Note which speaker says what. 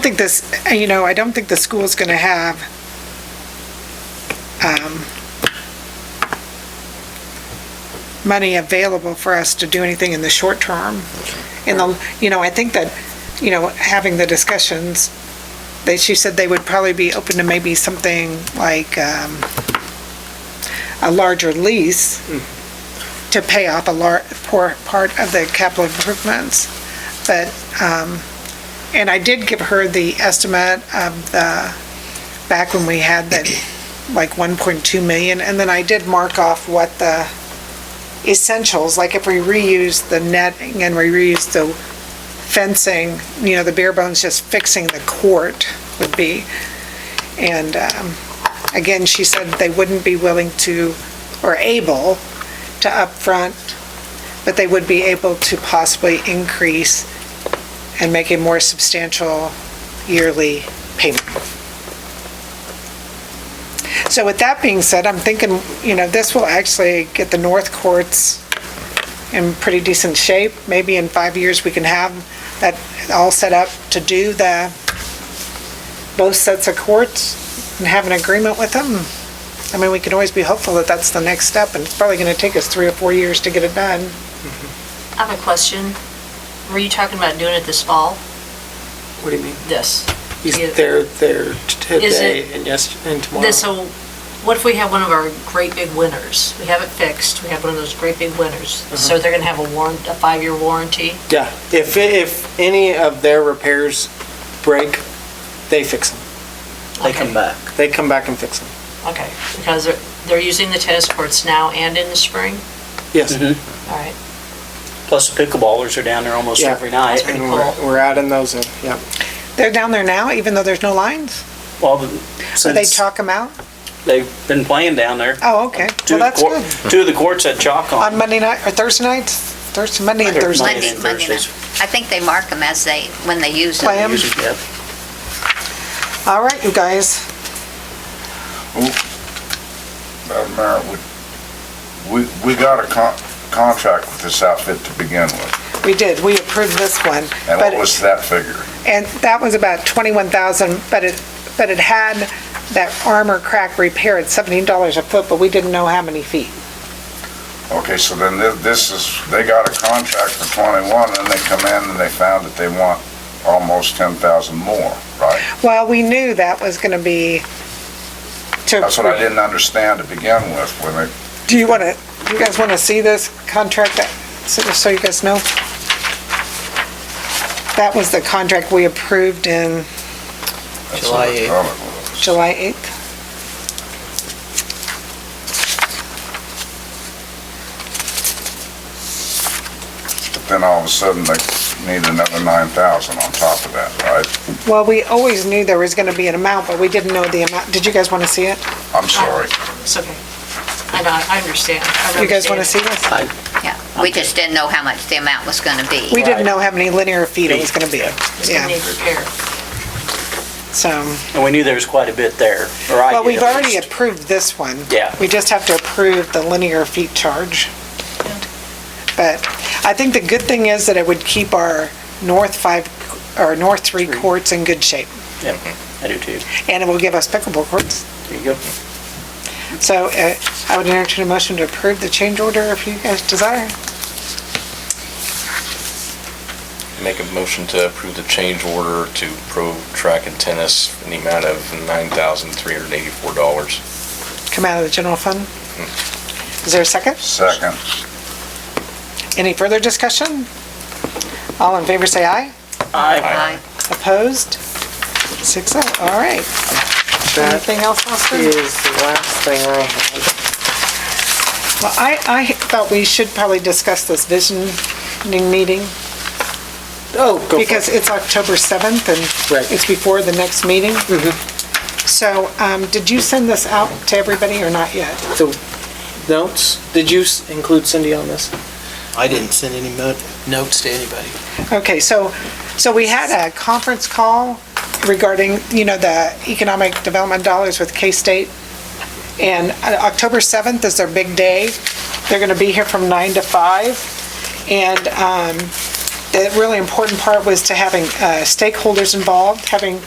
Speaker 1: think this, you know, I don't think the school's going to have, um, money available for us to do anything in the short term. In the, you know, I think that, you know, having the discussions, they, she said they would probably be open to maybe something like, um, a larger lease to pay off a lar, poor part of the capital improvements. But, um, and I did give her the estimate of the, back when we had that, like 1.2 million, and then I did mark off what the essentials, like if we reuse the netting and we reuse the fencing, you know, the bare bones, just fixing the court would be. And um, again, she said they wouldn't be willing to, or able to upfront, but they would be able to possibly increase and make a more substantial yearly payment. So with that being said, I'm thinking, you know, this will actually get the North Courts in pretty decent shape. Maybe in five years, we can have that all set up to do the, both sets of courts and have an agreement with them. I mean, we can always be hopeful that that's the next step, and it's probably going to take us three or four years to get it done.
Speaker 2: I have a question. Were you talking about doing it this fall?
Speaker 3: What do you mean?
Speaker 2: This?
Speaker 3: He's
Speaker 2: Yeah.
Speaker 3: there, there today
Speaker 2: it-
Speaker 3: and yes, and tomorrow.
Speaker 2: This, so what if we have one of our great big winners? We have it fixed, we have one of those great big winners. So they're gonna have a warrant, a five-year warranty?
Speaker 3: Yeah, if, if any of their repairs break, they fix them.
Speaker 2: They come back.
Speaker 3: They come back and fix them.
Speaker 2: Okay, because they're, they're using the tennis courts now and in the spring?
Speaker 3: Yes.
Speaker 2: All right,
Speaker 4: Plus the pickleballers are down there almost
Speaker 3: Yeah.
Speaker 4: every night.
Speaker 2: pretty
Speaker 3: And we're,
Speaker 2: cool.
Speaker 3: we're adding those in, yeah.
Speaker 1: They're down there now, even though there's no lines?
Speaker 4: Well, the-
Speaker 1: Do they
Speaker 4: since
Speaker 1: chalk them out?
Speaker 4: they've been playing down there.
Speaker 1: Oh, okay.
Speaker 4: Two
Speaker 1: Well,
Speaker 4: of
Speaker 1: that's
Speaker 4: the
Speaker 1: good.
Speaker 4: cour- Two of the courts had chalk
Speaker 1: On
Speaker 4: on.
Speaker 1: Monday night, or Thursday nights? Thursday, Monday and
Speaker 4: Monday.
Speaker 1: Thursday.
Speaker 4: Monday
Speaker 5: Monday,
Speaker 4: and
Speaker 5: Monday night.
Speaker 4: Thursdays.
Speaker 5: I think they mark them as they, when they use them.
Speaker 1: Plan. them.
Speaker 4: Usually, yeah.
Speaker 1: All right, you guys.
Speaker 6: Madam Mayor, we, we, we got a con- contract with this outfit to begin with,
Speaker 1: We did, we approved this one.
Speaker 6: and
Speaker 1: but-
Speaker 6: what was that figure?
Speaker 1: And that was about 21,000, but it, but it had that armor crack repair at $17 a foot, but we didn't know how many feet.
Speaker 6: Okay, so then thi- this is, they got a contract for twenty-one, and they come in and they found that they want almost ten thousand more, right?
Speaker 1: Well, we knew that was going to be to.
Speaker 6: That's what I didn't understand to begin with, when they,
Speaker 1: Do you want to, you guys want to see this contract, that- so so you guys know? That was the contract we approved in
Speaker 6: that's what
Speaker 4: July
Speaker 6: I thought it was.
Speaker 1: July 8th.
Speaker 6: But Then all of a sudden, they need another nine thousand on top of that, right?
Speaker 1: Well, we always knew there was going to be an amount, but we didn't know the amount. Did you guys want to see it?
Speaker 6: I'm sorry.
Speaker 2: it's okay. I know, I understand. I
Speaker 1: You guys want to see
Speaker 2: understand.
Speaker 1: this?
Speaker 5: Yeah, we just didn't know how much the amount was gonna be.
Speaker 1: We didn't know how many linear feet it was going to be.
Speaker 2: It's
Speaker 1: Yeah.
Speaker 2: gonna need repair.
Speaker 1: So,
Speaker 4: And we knew there was quite a bit there, or I
Speaker 1: well,
Speaker 4: did
Speaker 1: we've
Speaker 4: at
Speaker 1: already
Speaker 4: least.
Speaker 1: approved this one.
Speaker 4: Yeah.
Speaker 1: We just have to approve the linear feet charge. But I think the good thing is that it would keep our north five, or north three courts in good shape.
Speaker 4: Yep, I do too.
Speaker 1: And it will give us pickleball courts.
Speaker 4: There you go.
Speaker 1: So uh, I would entertain a motion to approve the change order if you guys desire.
Speaker 7: Make a motion to approve the change order to Pro Track and Tennis in the amount of $9,384.
Speaker 1: Come out of the general fund. Is there a second?
Speaker 6: Second,
Speaker 1: Any further discussion? All in favor, say aye.
Speaker 4: I,
Speaker 5: Aye.
Speaker 1: Opposed? Six oh, all right.
Speaker 3: That
Speaker 1: Anything else, Austin?
Speaker 3: is the last thing I have.
Speaker 1: Well, I, I thought we should probably discuss this visioning meeting,
Speaker 3: Oh, go for it.
Speaker 1: because it's October 7th,
Speaker 3: Right. Mm-hmm.
Speaker 1: and it's before the next meeting. So, um, did you send this out to everybody or not yet?
Speaker 3: Notes, did you s- include Cindy on this?
Speaker 8: I didn't send any mo- notes to anybody.
Speaker 1: Okay, so, so we had a conference call regarding, you know, the economic development dollars with K-State. And uh, October 7th is their big day. They're going to be here from 9 to 5. And um, the really important part was to having uh, stakeholders involved, having